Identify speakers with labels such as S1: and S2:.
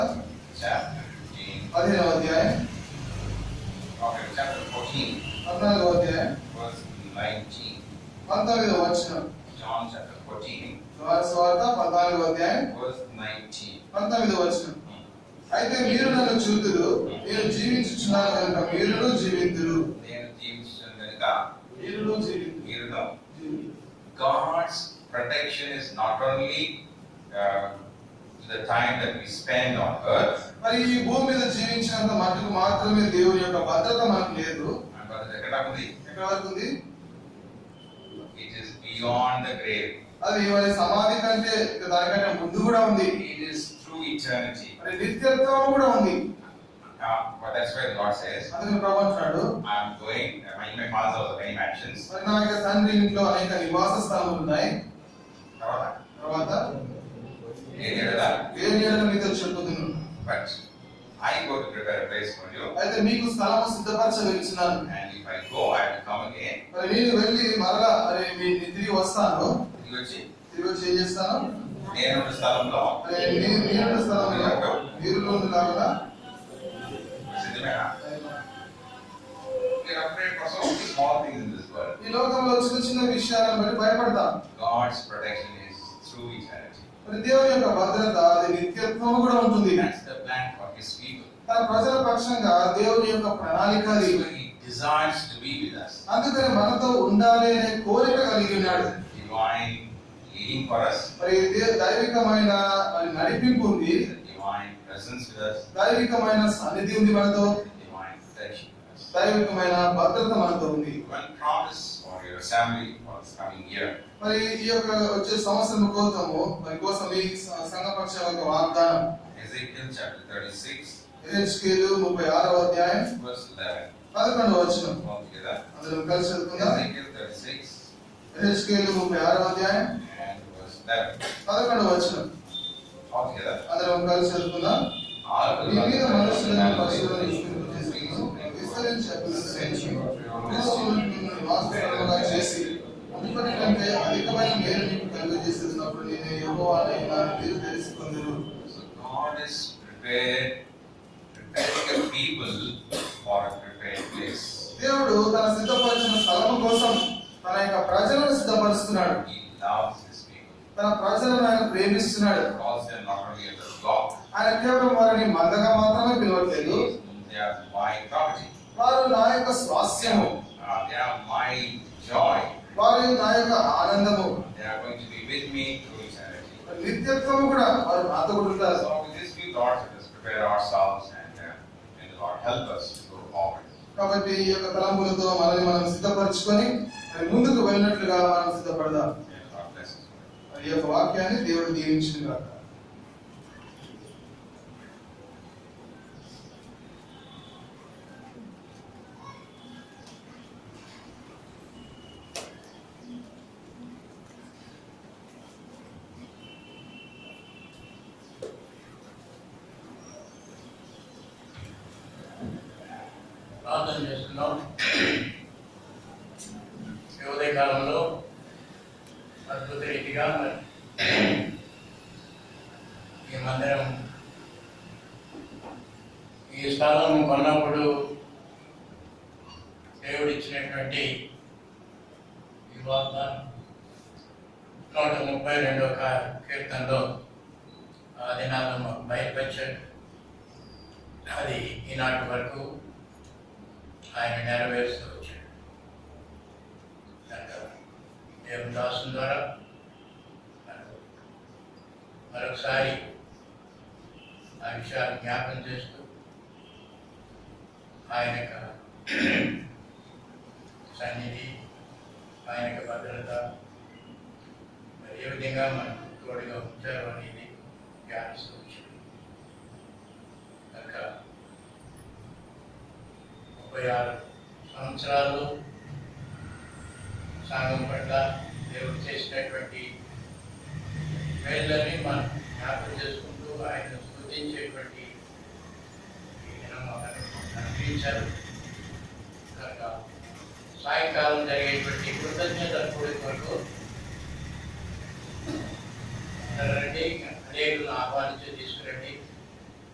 S1: chapter fifteen,
S2: పదిహేనవ అధ్యాయం
S1: okay, chapter fourteen,
S2: పద్నాలుగవ అధ్యాయం
S1: verse nineteen.
S2: పంతొమ్మిదవ వచనం
S1: John chapter fourteen,
S2: యోహాను సువార్త పద్నాలుగవ అధ్యాయం
S1: verse nineteen.
S2: పంతొమ్మిదవ వచనం అయితే మీరు నన్ను చూతురు నేను జీవించుచున్నాను కనుక మీరును జీవితురు
S1: నేను జీవించడం కనుక
S2: మీరును జీవితురు
S1: మీరు "Ah, know, God's protection is not only uh, the time that we spend on earth.
S2: మరి ఈ భూమి మీద జీవించినంత మటుకు మాత్రమే దేవుని యొక్క భద్రత మనకు లేదు
S1: And brother Jagadapudi,
S2: ఎక్కడ వరకు ఉంది
S1: it is beyond the grave.
S2: అది ఇవాళ సమాధి కంటే ఇక దానికంటే ముందు కూడా ఉంది
S1: It is through eternity.
S2: మరి నిత్యత్వం కూడా ఉంది
S1: Now, but that's where God says,
S2: అందుకని ప్రభు అంటున్నాడు
S1: I'm going, uh, in my father's house, many mansions.
S2: మరి నా యొక్క తండ్రి ఇంట్లో అనేక నివాస స్థలములు ఉన్నాయి
S1: తర్వాత,
S2: తర్వాత
S1: నేను ఎడల,
S2: వేరు ఏళ్ళ మీతో చెప్పుదును
S1: But I go to prepare a place for you.
S2: అయితే మీకు స్థలము సిద్ధపరచవచ్చున్నాను
S1: And if I go, I will come again.
S2: మరి నేను వెళ్ళి మరలా మరి మీ నేను తిరిగి వస్తాను
S1: తిరిగి వచ్చి
S2: తిరిగి వచ్చి ఏం చేస్తాను
S1: నేను ఉన్న స్థలంలో
S2: మరి నేను నేను స్థలంలో మీరు ఉండలాగా
S1: సిద్ధమేనా We are afraid for so many small things in this world.
S2: ఈ లోకంలో చిన్న చిన్న విషయాలను బట్టి భయపడతాం
S1: God's protection is through eternity.
S2: మరి దేవుని యొక్క భద్రత అది నిత్యత్వం కూడా ఉంటుంది
S1: That's the plan for His people.
S2: తన ప్రజల పక్షంగా దేవుని యొక్క ప్రణాళిక అది
S1: Even He desires to be with us.
S2: అందుకని మనతో ఉండాలి అనే కోరిక కలిగి ఉన్నాడు
S1: Divine leading for us,
S2: మరి దే- దైవికమైన మరి నడిపింపు ఉంది
S1: the divine presence with us,
S2: దైవికమైన సన్నిధి ఉంది మనతో
S1: the divine protection with us.
S2: దైవికమైన భద్రత మనతో ఉంది
S1: One promise for your family for this coming year.
S2: మరి ఈ యొక్క వచ్చే సంవత్సరం కోసము మరి కోసం ఈ స- సంఘపక్ష యొక్క వాగ్దానం
S1: Ezekiel chapter 36,
S2: ఎహెచ్కేలు ముప్పై ఆరవ అధ్యాయం
S1: verse 11.
S2: పదకొండు వచ్చిన
S1: All together.
S2: అందరం కలిసి చదువుకుందాం
S1: Ezekiel 36
S2: ఎహెచ్కేలు ముప్పై ఆరవ అధ్యాయం
S1: and verse 11.
S2: పదకొండు వచ్చిన
S1: All together.
S2: అందరం కలిసి చదువుకుందాం
S1: ఆరు
S2: మీ మీద మనుషులను పశువులను వాస్తవంగా చేసి అందుకని కంటే అధికమైన మేలు మీకు కలుగజేస్తున్నప్పుడు నేను ఎవరో వాళ్ళైనా మీరు తెలుసుకుందరు
S1: So God is prepared, preparing a people for a prepared place.
S2: దేవుడు తన సిద్ధపరిచిన స్థలం కోసం తన యొక్క ప్రజలను సిద్ధపరుస్తున్నాడు
S1: He loves his people.
S2: తన ప్రజలను ఆయన ప్రేమిస్తున్నాడు
S1: Calls them not only as a flock,
S2: ఆయన కేవలం వారిని మందగా మాత్రమే పిలవట్లేదు
S1: they are my property.
S2: వారు నా యొక్క
S1: They
S2: స్వాస్థ్యము
S1: are, uh, they are my joy.
S2: వారు నా యొక్క ఆనందము
S1: They are going to be with me through eternity.
S2: నిత్యత్వము కూడా వారు నాతో కూడా ఉంటారు
S1: So with these few thoughts, let us prepare ourselves and uh, may the Lord help us to go forward.
S2: కాబట్టి ఈ యొక్క తలంపులతో మనల్ని మనం సిద్ధపరచుకొని మరి ముందుకు వెళ్ళినట్లుగా మనం సిద్ధపడదాం
S1: And God bless us.
S2: మరి ఈ యొక్క వాక్యాన్ని దేవుడు దీవించిన కాక
S3: ప్రార్థన చేస్తున్నాం ఈ ఉదయకాలంలో అద్భుత రీతిగా మరి ఈ మందిరం ఈ స్థలం కొన్నప్పుడు దేవుడు ఇచ్చినటువంటి ఈ వాగ్దానం నూట ముప్పై రెండవ కా- కీర్తనలో ఆ దినాలు మాకు బయలుపరిచాడు అది ఈనాటి వరకు ఆయన నెరవేరుస్తూ వచ్చాడు కనుక దేవుని దాసుని ద్వారా మనకు మరొకసారి ఆ విషయాలు జ్ఞాపకం చేస్తూ ఆయన యొక్క సన్నిధి ఆయన యొక్క భద్రత మరి ఏ విధంగా మనకు తోడుగా ఉంచారు అనేది ధ్యానిస్తూ వచ్చాడు కనుక ముప్పై ఆరు సంవత్సరాలు సాగం పట్ల దేవుడు చేసినటువంటి మేళ్ళని మనం జ్ఞాపకం చేసుకుంటూ ఆయన స్మృతించేటువంటి ఈ దినం మనకు అనుగ్రహించారు కనుక సాయంకాలం జరిగేటువంటి కృతజ్ఞత కూడిక